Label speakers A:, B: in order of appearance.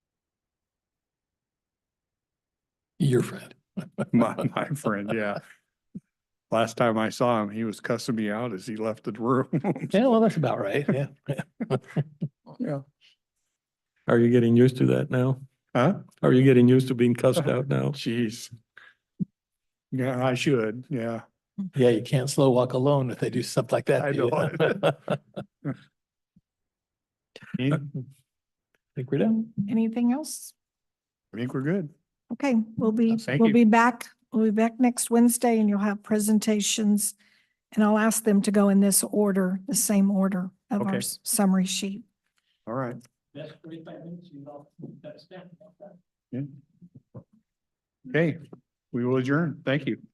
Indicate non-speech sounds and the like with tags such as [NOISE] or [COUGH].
A: Your friend.
B: My, my friend, yeah. Last time I saw him, he was cussing me out as he left the room. [LAUGHS]
A: Yeah, well, that's about right. Yeah. [LAUGHS]
B: Yeah.
C: Are you getting used to that now?
B: Huh?
C: Are you getting used to being cussed out
B: [LAUGHS]
C: now?
B: Jeez. Yeah, I should, yeah.
A: Yeah, you can't slow walk alone if they do stuff like that.
B: I
A: to you.
B: know.
A: [LAUGHS] I
B: I
C: Uh,
A: Think we're done.
D: Anything else?
B: think we're good.
D: Okay, we'll be,
B: Thank
D: we'll
B: you.
D: be back, we'll be back next Wednesday and you'll have presentations. And I'll ask them to go in this order, the same order of
B: Okay.
D: our s- summary sheet.
B: All right.
A: That's forty-five minutes, you know, that's that.
B: Yeah. Okay, we will adjourn. Thank you.